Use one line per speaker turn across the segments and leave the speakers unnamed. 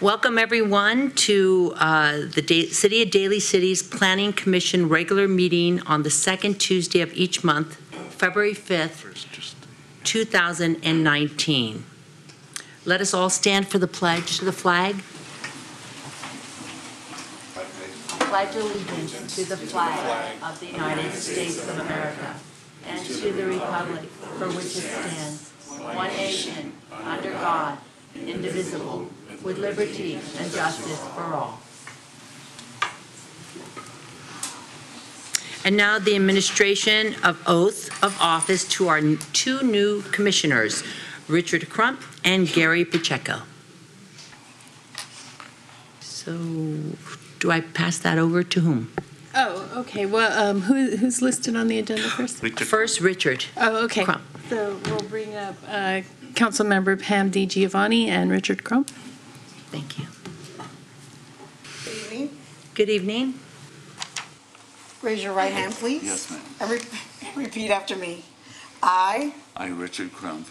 Welcome, everyone, to uh, the Da- City of Daly City's Planning Commission regular meeting on the second Tuesday of each month, February 5th, 2019. Let us all stand for the pledge to the flag. Pledge allegiance to the flag of the United States of America and to the republic for which it stands, one nation, under God, indivisible, with liberty and justice for all. And now the administration of oath of office to our two new commissioners, Richard Crump and Gary Pacheco. So do I pass that over to whom?
Oh, okay, well, um, who, who's listed on the agenda first?
First, Richard.
Oh, okay.
Crump.
So we'll bring up, uh, Councilmember Pam Di Giovanni and Richard Crump.
Thank you.
Good evening.
Good evening.
Raise your right hand, please.
Yes, ma'am.
And re- repeat after me. I
I, Richard Crump,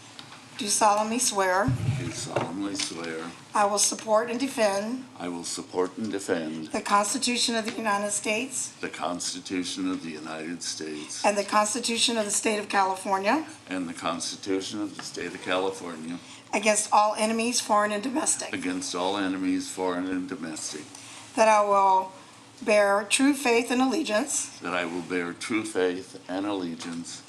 do solemnly swear
do solemnly swear
I will support and defend
I will support and defend
the Constitution of the United States
the Constitution of the United States
and the Constitution of the State of California
and the Constitution of the State of California
against all enemies, foreign and domestic,
against all enemies, foreign and domestic,
that I will bear true faith and allegiance
that I will bear true faith and allegiance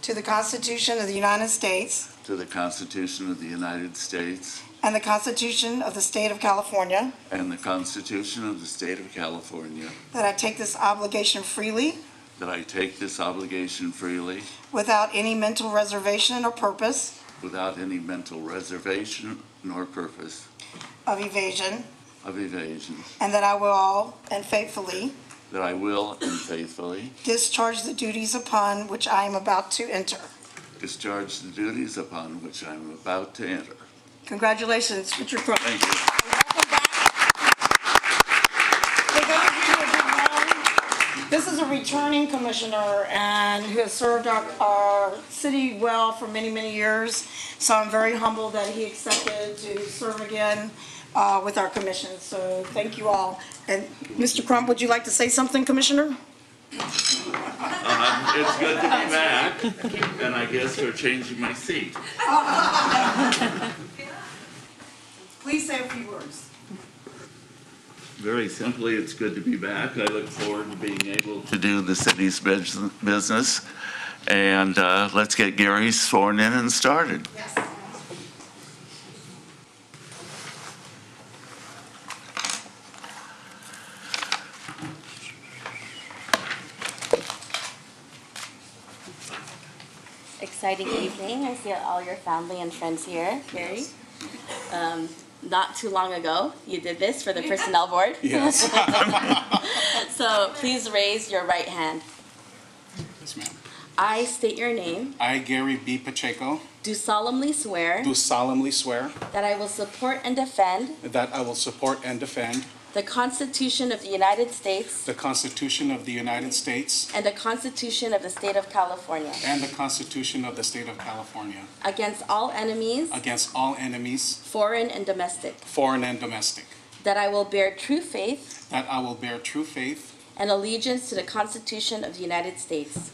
to the Constitution of the United States
to the Constitution of the United States
and the Constitution of the State of California,
and the Constitution of the State of California,
that I take this obligation freely
that I take this obligation freely
without any mental reservation or purpose
without any mental reservation nor purpose
of evasion,
of evasion,
And that I will and faithfully
that I will and faithfully
discharge the duties upon which I am about to enter.
discharge the duties upon which I am about to enter.
Congratulations, Richard Crump.
Thank you.
For those of you who don't know, This is a returning commissioner and who has served our, our city well for many, many years. So I'm very humbled that he accepted to serve again uh, with our commission. So thank you all. And Mr. Crump, would you like to say something, Commissioner?
It's good to be back, and I guess we're changing my seat.
Please say a few words.
Very simply, it's good to be back. I look forward to being able to do the city's bus- business. And uh, let's get Gary sworn in and started.
exciting evening. I see all your family and friends here, Gary. Um, not too long ago, you did this for the personnel board. Yes. so please raise your right hand.
Yes, ma'am.
I state your name.
I, Gary B. Pacheco,
Do solemnly swear
do solemnly swear
that I will support and defend
that I will support and defend
the Constitution of the United States
the Constitution of the United States
and the Constitution of the State of California
and the Constitution of the State of California
against all enemies,
against all enemies,
foreign and domestic.
foreign and domestic,
That I will bear true faith
that I will bear true faith
and allegiance to the Constitution of the United States.